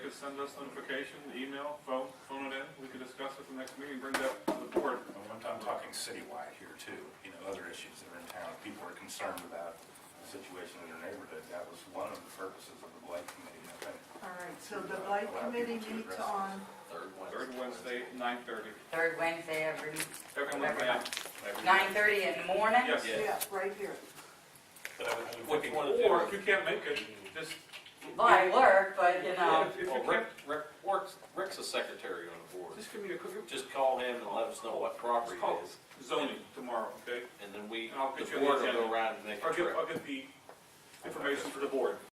send us notification, email, phone, phone it in, we can discuss it the next meeting, bring that to the board. And I'm I'm talking citywide here too, you know, other issues that are in town, people are concerned about the situation in their neighborhood. That was one of the purposes of the blight committee, I think. All right, so the blight committee meets on, Third one. Third Wednesday, nine thirty. Third Wednesday every, Every Wednesday, Maybe- nine thirty in the morning? yes. Yeah. yeah, right here. But I was Which looking- one of Or if you can't make it, just, Well, I work, but you know, if if you Well, can't, Rick, Rick, works- Rick's a secretary on the board. just give me a quick, Just call him and let us know what property call it is, zoning tomorrow, okay? and then we, I'll get the you on the board will go agenda. around and make I'll a get, trip. I'll get the information for the board.